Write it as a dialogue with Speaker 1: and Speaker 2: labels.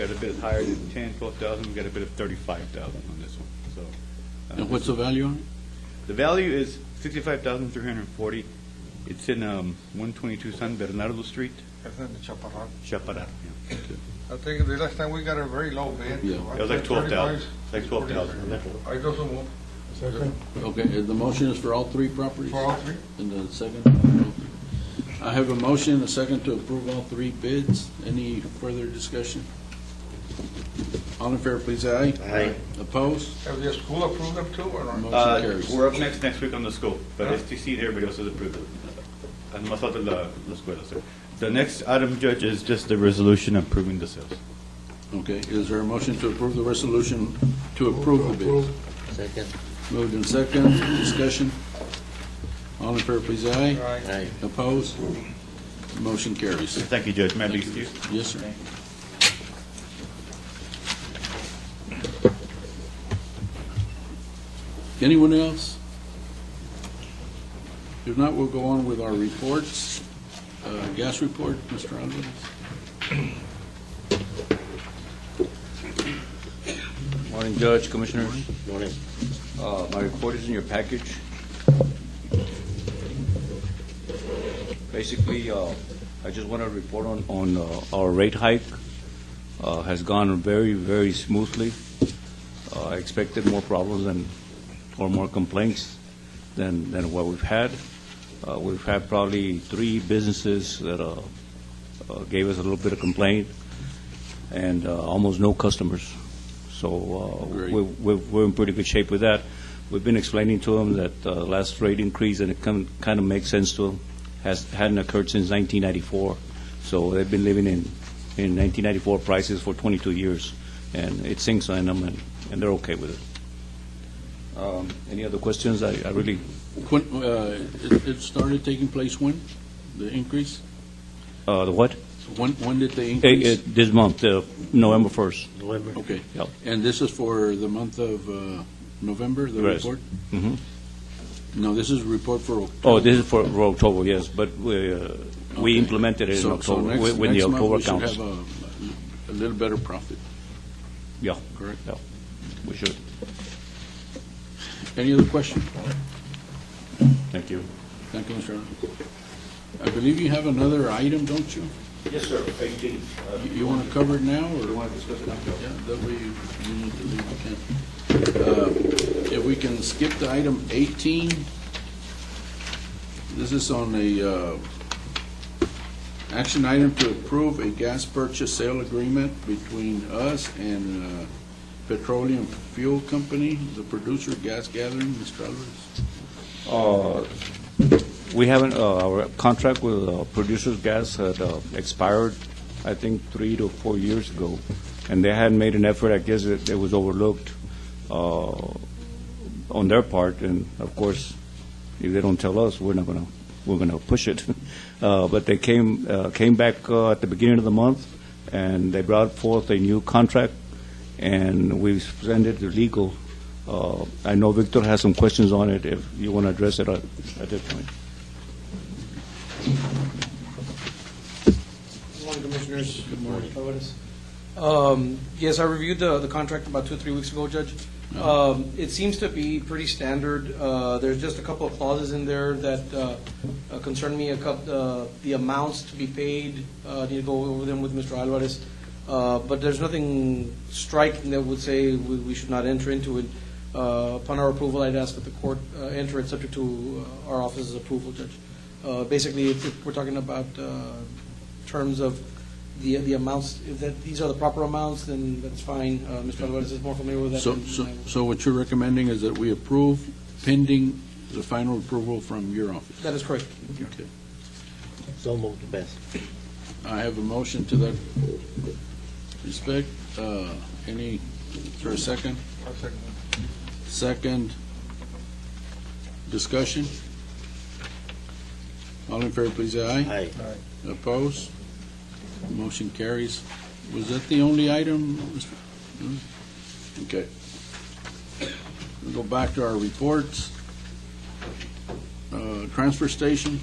Speaker 1: Got a bit higher than 10, 12,000, we got a bit of 35,000 on this one, so. uh,
Speaker 2: And what's the value on it?
Speaker 1: The value is 65,340. It's in um, 122 San Bernardo Street,
Speaker 3: That's in the Chaparral.
Speaker 1: Chaparral. yeah.
Speaker 3: I think the last time we got a very low bid.
Speaker 2: Yeah.
Speaker 1: It was like 12,000, like 12,000.
Speaker 3: I go so move
Speaker 2: Okay, uh, the motion is for all three properties?
Speaker 3: for all oh three.
Speaker 2: And the second? I have a motion and a second to approve all three bids. Any further discussion? All in favor, please, aye.
Speaker 1: Aye.
Speaker 2: Opposed?
Speaker 3: Have the school approved them too or not?
Speaker 2: Motion
Speaker 1: Uh,
Speaker 2: carries.
Speaker 1: We're up next, next week on the scope, but STC and everybody else has approved it. And más falta la, la escuela, sir. The next item, Judge, is just the resolution approving the sales.
Speaker 2: Okay, is there a motion to approve the resolution to approve the bids?
Speaker 4: Second.
Speaker 2: Moved and second, discussion? All in favor, please, aye.
Speaker 3: Right.
Speaker 4: Aye.
Speaker 2: Opposed? Motion carries.
Speaker 1: Thank you, Judge. May I be excused?
Speaker 2: Yes, sir. Anyone else? If not, we'll go on with our reports. Uh, Gas report, Mr. Alvarez.
Speaker 5: Morning, Judge, Commissioners.
Speaker 4: Morning.
Speaker 5: Uh, My report is in your package. Basically, uh, I just want to report on, on uh, our rate hike Uh, has gone very, very smoothly. Uh, I expected more problems than, or more complaints than, than what we've had. Uh, We've had probably three businesses that uh, uh, gave us a little bit of complaint, and uh, almost no customers. So uh,
Speaker 2: Great.
Speaker 5: we're- we're we're in pretty good shape with that. We've been explaining to them that uh, last rate increase, and it kind of makes sense to them, has, hadn't occurred since 1994. So they've been living in, in 1994 prices for 22 years, and it sinks in them, and and they're okay with it. Um, Any other questions? I I really,
Speaker 2: When, uh, it it started taking place when, the increase?
Speaker 5: uh, the what?
Speaker 2: When, when did the
Speaker 5: Eh,
Speaker 2: increase?
Speaker 5: eh, This month, uh, November 1st.
Speaker 4: November.
Speaker 2: Okay.
Speaker 5: Yep.
Speaker 2: And this is for the month of uh, November, the
Speaker 5: Yes.
Speaker 2: report?
Speaker 5: Mhm.
Speaker 2: No, this is report for October.
Speaker 5: Oh, this is for for October, yes, but we, uh,
Speaker 2: Okay.
Speaker 5: we implemented it in
Speaker 2: So- so
Speaker 5: October,
Speaker 2: next-
Speaker 5: with with the October
Speaker 2: Next month, we
Speaker 5: counts.
Speaker 2: should have a- a little better profit,
Speaker 5: Yeah,
Speaker 2: correct?
Speaker 5: yeah, we should.
Speaker 2: Any other question?
Speaker 5: Thank you.
Speaker 2: Thank you, Mr. Allen. I believe you have another item, don't you?
Speaker 1: Yes, sir. 18.
Speaker 2: You- You want to cover it now, or?
Speaker 1: want to discuss it
Speaker 2: Yeah, that way you you need to leave, you can. Uh, If we can skip to item 18, this is on a, uh, action item to approve a gas purchase sale agreement between us and uh, Petroleum Fuel Company, the producer of gas gathering, Mr. Alvarez.
Speaker 5: Uh, We haven't, uh, our contract with uh, Producers Gas had uh, expired, I think, three to four years ago, and they hadn't made an effort, I guess it it was overlooked uh, on their part, and of course, if they don't tell us, we're not going to, we're going to push it. Uh, But they came, uh, came back uh, at the beginning of the month, and they brought forth a new contract, and we sent it to legal. Uh, I know Victor has some questions on it, if you want to address it at at this point.
Speaker 6: Good morning, Commissioners. Good morning. Um, Yes, I reviewed the, the contract about two, three weeks ago, Judge. Um, It seems to be pretty standard. Uh, There's just a couple of clauses in there that uh, uh, concern me, a couple, the amounts to be paid, uh, need to go over them with Mr. Alvarez. Uh, But there's nothing striking that would say we, we should not enter into it. Uh, Upon our approval, I'd ask that the court uh, enter it subject to uh, our office's approval, Judge. Uh, Basically, if- if we're talking about uh, terms of the, the amounts, if that, these are the proper amounts, then that's fine. Uh, Mr. Alvarez is more familiar with that.
Speaker 2: So,
Speaker 6: than
Speaker 2: so
Speaker 6: I am.
Speaker 2: so what you're recommending is that we approve pending the final approval from your office?
Speaker 6: That is correct.
Speaker 2: Okay.
Speaker 4: So moved, best.
Speaker 2: I have a motion to that respect. Uh, Any, is there a second?
Speaker 3: I second.
Speaker 2: Second discussion? All in favor, please, aye.
Speaker 4: Aye.
Speaker 2: Opposed? Motion carries. Was that the only item? Mr. Hmm? Okay. We'll go back to our reports. Uh, Transfer station.